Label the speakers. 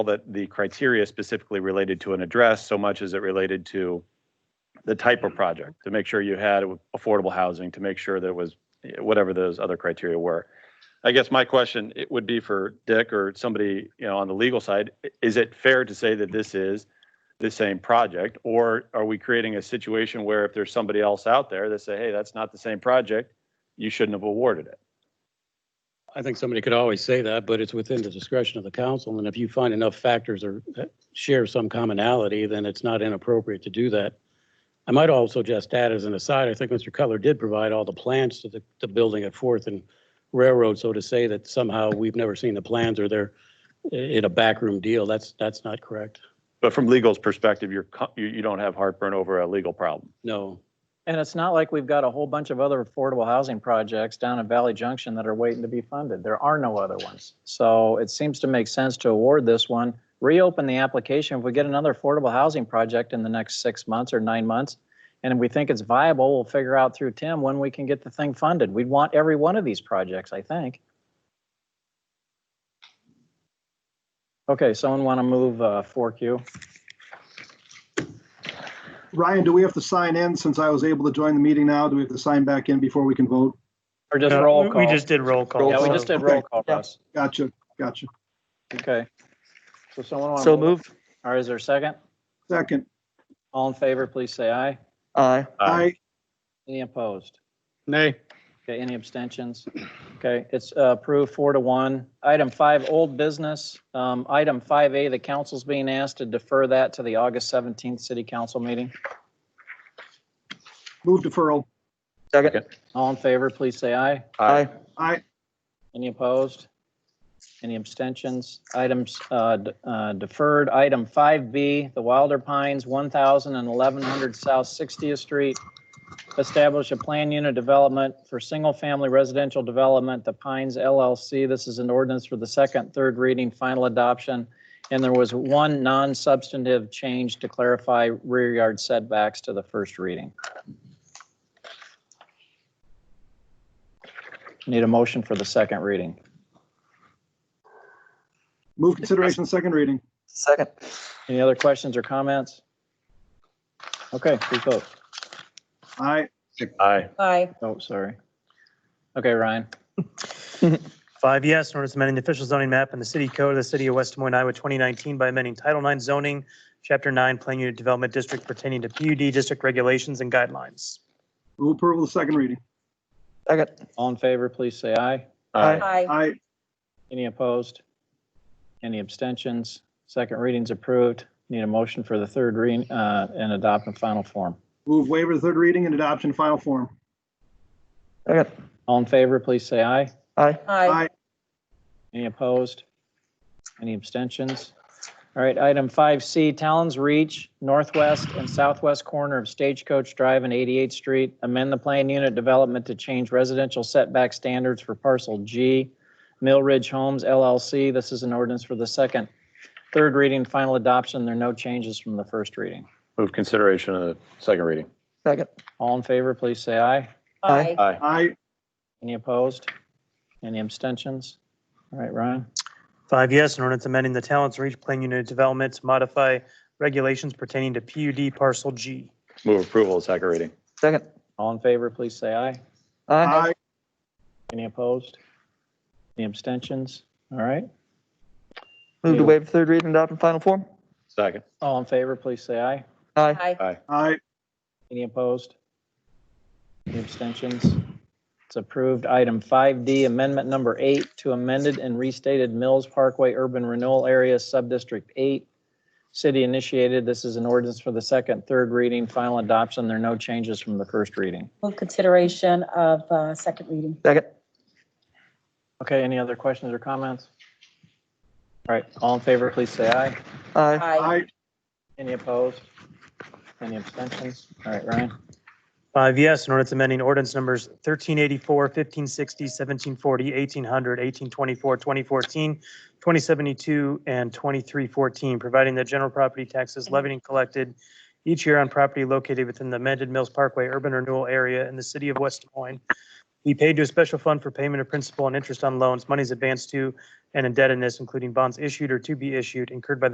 Speaker 1: that the criteria specifically related to an address so much as it related to the type of project, to make sure you had affordable housing, to make sure that it was whatever those other criteria were. I guess my question, it would be for Dick or somebody, you know, on the legal side, i- is it fair to say that this is the same project? Or are we creating a situation where if there's somebody else out there that say, hey, that's not the same project, you shouldn't have awarded it?
Speaker 2: I think somebody could always say that, but it's within the discretion of the council. And if you find enough factors or that share some commonality, then it's not inappropriate to do that. I might also just add as an aside, I think Mr. Cutler did provide all the plans to the, the building at Fourth and Railroad. So to say that somehow we've never seen the plans or they're i- in a backroom deal, that's, that's not correct.
Speaker 1: But from legal's perspective, you're, co- you, you don't have heartburn over a legal problem.
Speaker 2: No.
Speaker 3: And it's not like we've got a whole bunch of other affordable housing projects down in Valley Junction that are waiting to be funded. There are no other ones. So it seems to make sense to award this one, reopen the application. If we get another affordable housing project in the next six months or nine months, and we think it's viable, we'll figure out through Tim when we can get the thing funded. We'd want every one of these projects, I think. Okay, someone want to move uh, 4Q?
Speaker 4: Ryan, do we have to sign in since I was able to join the meeting now? Do we have to sign back in before we can vote?
Speaker 3: Or just
Speaker 5: No,
Speaker 3: roll
Speaker 5: Uh, we-
Speaker 3: call?
Speaker 5: We just did roll call.
Speaker 3: Yeah, we
Speaker 5: so-
Speaker 3: just did roll call,
Speaker 4: Yeah.
Speaker 3: Russ.
Speaker 4: Gotcha, gotcha.
Speaker 3: Okay. So someone want to?
Speaker 6: So moved.
Speaker 3: All right, is there a second?
Speaker 4: Second,
Speaker 3: All in favor, please say aye.
Speaker 6: Aye.
Speaker 1: Uh,
Speaker 4: I,
Speaker 3: Any opposed?
Speaker 2: Nay.
Speaker 3: Okay, any abstentions? Okay, it's uh, approved four to one. Item five, old business. Um, Item 5A, the council's being asked to defer that to the August 17th city council meeting.
Speaker 4: move deferral.
Speaker 6: Second.
Speaker 3: All in favor, please say aye.
Speaker 6: Aye.
Speaker 4: I,
Speaker 3: Any opposed? Any abstentions? Items uh, d- uh, deferred. Item 5B, the Wilder Pines, 1,000 and 1100 South 60th Street. Establish a plan unit development for single-family residential development, the Pines LLC. This is an ordinance for the second, third reading, final adoption. And there was one non-substantive change to clarify rear yard setbacks to the first reading. Need a motion for the second reading.
Speaker 4: move consideration, second reading.
Speaker 6: Second.
Speaker 3: Any other questions or comments? Okay, please vote.
Speaker 4: I,
Speaker 1: Aye.
Speaker 7: Aye.
Speaker 3: Oh, sorry. Okay, Ryan.
Speaker 5: Five yes, in order to amend the official zoning map in the city code of the city of West Des Moines, Iowa, 2019 by amending Title IX zoning, Chapter 9, Plan Unit Development District pertaining to PUD district regulations and guidelines.
Speaker 4: move approval, of second reading.
Speaker 6: Second.
Speaker 3: All in favor, please say aye.
Speaker 6: Aye.
Speaker 7: Aye.
Speaker 4: I,
Speaker 3: Any opposed? Any abstentions? Second reading's approved. Need a motion for the third reading uh, and adopt in final form.
Speaker 4: move waiver, of third reading and adoption, in final form.
Speaker 6: Second.
Speaker 3: All in favor, please say aye.
Speaker 6: Aye.
Speaker 7: Aye.
Speaker 4: I,
Speaker 3: Any opposed? Any abstentions? All right, item 5C, Talon's Reach, northwest and southwest corner of Stagecoach Drive and 88th Street. Amend the plan unit development to change residential setback standards for parcel G, Mill Ridge Homes LLC. This is an ordinance for the second, third reading, final adoption. There are no changes from the first reading.
Speaker 1: Move consideration of the second reading.
Speaker 6: Second.
Speaker 3: All in favor, please say aye.
Speaker 6: Aye.
Speaker 1: Aye.
Speaker 4: I,
Speaker 3: Any opposed? Any abstentions? All right, Ryan?
Speaker 5: Five yes, in order to amending the Talents Reach Plan Unit Development to modify regulations pertaining to PUD Parcel G.
Speaker 1: Move approval of second reading.
Speaker 6: Second.
Speaker 3: All in favor, please say aye.
Speaker 6: Aye.
Speaker 4: I,
Speaker 3: Any opposed? Any abstentions? All right,
Speaker 6: Move to waive third reading, adopt in final form.
Speaker 1: Second.
Speaker 3: all in favor, please say aye.
Speaker 6: Aye.
Speaker 7: Aye.
Speaker 4: I,
Speaker 3: Any opposed? Any abstentions? It's approved. Item 5D, Amendment Number 8 to amended and restated Mills Parkway Urban Renewal Area Subdistrict 8. City initiated. This is an ordinance for the second, third reading, final adoption. There are no changes from the first reading.
Speaker 7: Move consideration of uh, second reading.
Speaker 6: Second.
Speaker 3: Okay, any other questions or comments? All right, all in favor, please say aye.
Speaker 6: Aye.
Speaker 7: Aye.
Speaker 4: I,
Speaker 3: Any opposed? Any abstentions? All right, Ryan?
Speaker 5: Five yes, in order to amending ordinance numbers 1384, 1560, 1740, 1800, 1824, 2014, 2072, and 2314, providing that general property taxes levied and collected each year on property located within the amended Mills Parkway urban renewal area in the city of West Des Moines be paid to a special fund for payment of principal and interest on loans, monies advanced to and indebtedness, including bonds issued or to be issued incurred by the